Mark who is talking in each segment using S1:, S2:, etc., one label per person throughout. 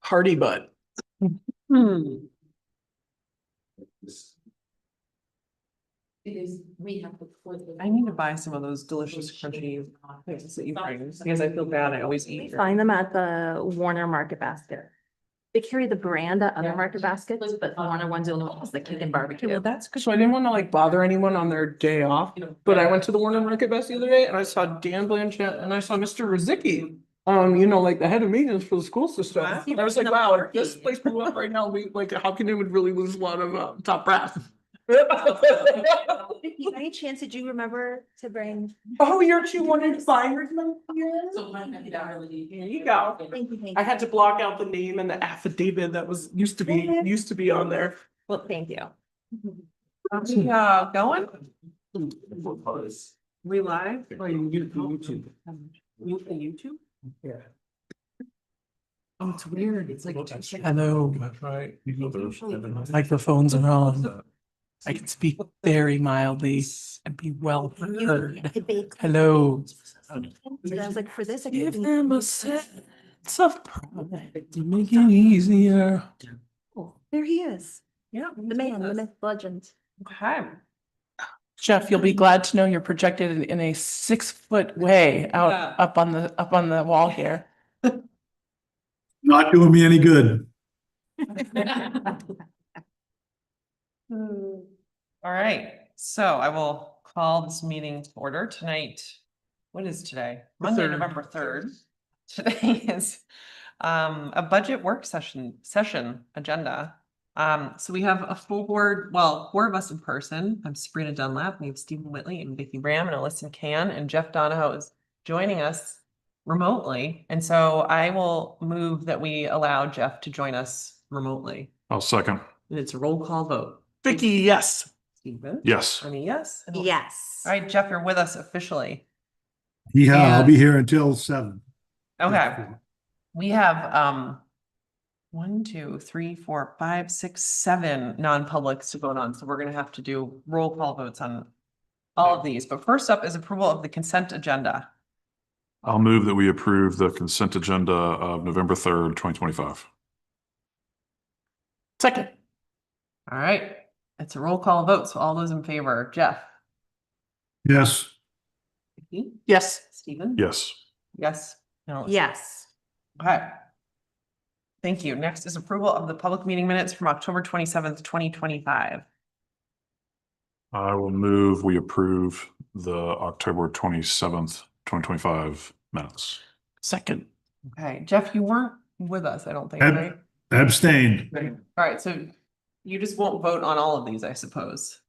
S1: Hardy Bud.
S2: Hmm.
S3: Because we have before. the-
S4: I need to buy some of those delicious crunchy things that you bring, because I feel bad, I always
S2: We
S4: eat.
S2: find them at the Warner Market Basket. They carry the brand at other market baskets, but the Warner one's the only one that's the chicken
S4: Okay, well,
S2: barbecue.
S4: that's good.
S1: So I didn't want to like bother anyone on their day off,
S3: You know,
S1: but I went to the Warner Market Best the other day and I saw Dan Blanchett and I saw Mr. Rozicki. Um, you know, like the head of maintenance for the school system.
S4: Wow.
S1: And I was like, wow, if this place blew up right now, we like, how can it would really lose a lot of uh, top brass?
S2: Any chance did you remember to bring?
S1: Oh, you're two wanted firemen here?
S3: So when I get out early.
S1: There you go.
S2: Thank you, thank
S1: I
S2: you.
S1: had to block out the name and the affidavit that was, used to be, used to be on there.
S2: Well, thank you.
S4: Are we, uh, going?
S1: Hmm.
S4: We live? Um,
S1: Oh, you can get it through YouTube.
S4: You can YouTube?
S1: Yeah.
S4: Oh, it's weird, it's like. two seconds.
S5: Hello,
S1: Right.
S5: microphones are on. I can speak very mildly and be well heard. Hello.
S2: And I was like, for this. I
S5: Give
S2: couldn't-
S5: them a sense of pride to make it easier.
S2: There he is,
S4: Yeah.
S2: the man, the myth, legend.
S4: Okay.
S5: Jeff, you'll be glad to know you're projected in- in a six foot way
S4: Yeah.
S5: out, up on the, up on the wall here.
S6: Not doing me any good.
S4: All right, so I will call this meeting to order tonight. What is today? Monday,
S1: third.
S4: November third. Today is um a budget work session, session agenda. Um, so we have a full board, well, four of us in person. I'm Sabrina Dunlap, we have Stephen Whitley and Vicky Bram and Alyssa Can and Jeff Donahoe is joining us remotely. And so I will move that we allow Jeff to join us remotely.
S6: I'll second.
S4: And it's a roll call vote.
S1: Vicky, yes.
S4: Stephen?
S6: Yes.
S4: I mean, yes. and-
S2: Yes.
S4: All right, Jeff, you're with us officially.
S6: Yeah, I'll
S4: And-
S6: be here until seven.
S4: Okay, we have, um, one, two, three, four, five, six, seven non-publics to vote on, so we're gonna have to do roll call votes on all of these, but first up is approval of the consent agenda.
S7: I'll move that we approve the consent agenda of November third, twenty twenty-five.
S1: Second.
S4: All right, it's a roll call vote, so all those in favor, Jeff?
S6: Yes,
S4: Vicky?
S1: Yes.
S4: Stephen?
S7: Yes,
S4: Yes? and Alyssa?
S2: Yes.
S4: Okay. Thank you. Next is approval of the public meeting minutes from October twenty-seventh, twenty twenty-five.
S7: I will move, we approve the October twenty-seventh, twenty twenty-five minutes.
S1: Second.
S4: Okay, Jeff, you weren't with us, I don't think,
S6: Ab-
S4: right?
S6: abstained.
S4: All right, so you just won't vote on all of these, I suppose.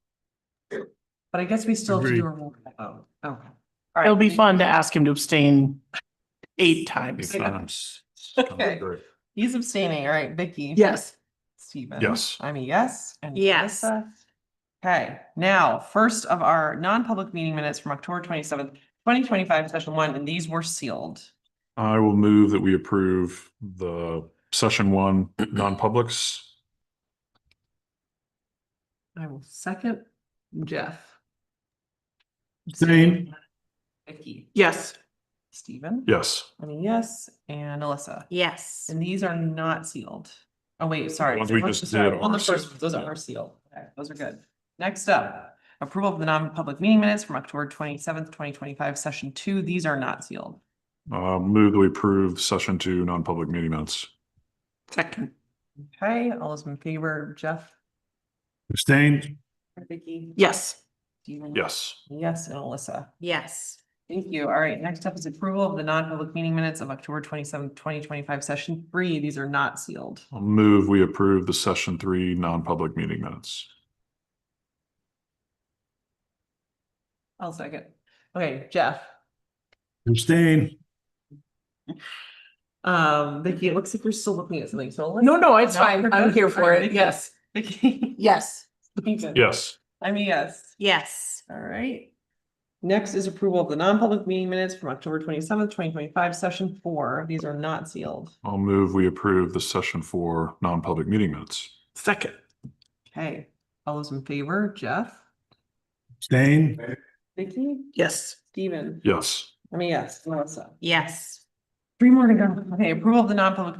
S4: But I guess we still have to do a roll call vote. Okay. All
S1: It'll
S4: right,
S1: be
S4: we-
S1: fun to ask him to abstain eight times.
S4: Okay. Okay. He's abstaining, all right, Vicky?
S1: Yes.
S4: Steven?
S7: Yes.
S4: I'm a yes. and
S2: Yes.
S4: Alyssa? Okay, now, first of our non-public meeting minutes from October twenty-seventh, twenty twenty-five, session one, and these were sealed.
S7: I will move that we approve the session one, non-publics.
S4: I will second Jeff.
S6: Abstain.
S4: Vicky,
S1: Yes.
S4: Steven?
S7: Yes.
S4: I mean, yes, and Alyssa.
S2: Yes.
S4: And these are not sealed. Oh, wait, sorry.
S7: ones we
S4: Those-
S7: just
S4: sorry,
S7: did
S4: On the
S7: are
S4: first,
S7: sealed.
S4: those are sealed. Okay, Those are good. Next up, approval of the non-public meeting minutes from October twenty-seventh, twenty twenty-five, session two. These are not sealed.
S7: Uh, move that we approve session two, non-public meeting minutes.
S1: Second.
S4: Okay, all those in favor, Jeff,
S6: Abstained.
S4: Vicky?
S1: Yes.
S4: Steven?
S7: Yes.
S4: Yes, and Alyssa.
S2: Yes.
S4: Thank you. All right, next up is approval of the non-public meeting minutes of October twenty-seventh, twenty twenty-five, session three. These are not sealed.
S7: I'll move, we approve the session three, non-public meeting minutes.
S4: I'll second. Okay, Jeff?
S6: Abstained.
S4: Um, Vicky, it looks like you're still looking at something, so. let's-
S1: No, no, it's
S4: No,
S1: fine.
S4: you're
S1: I'm
S4: good.
S1: here for
S4: Alright,
S1: it.
S4: Vicky.
S1: Yes.
S4: Vicky.
S1: Yes.
S7: Yes.
S4: I mean, yes.
S2: Yes.
S4: All right. Next is approval of the non-public meeting minutes from October twenty-seventh, twenty twenty-five, session four. These are not sealed.
S7: I'll move, we approve the session four, non-public meeting minutes.
S1: Second.
S4: Okay, all those in favor, Jeff?
S6: Abstained.
S4: Vicky?
S1: Yes.
S4: Steven?
S7: Yes.
S4: I mean, yes, Melissa.
S2: Yes.
S4: Three more to go. Okay, approval of the non-public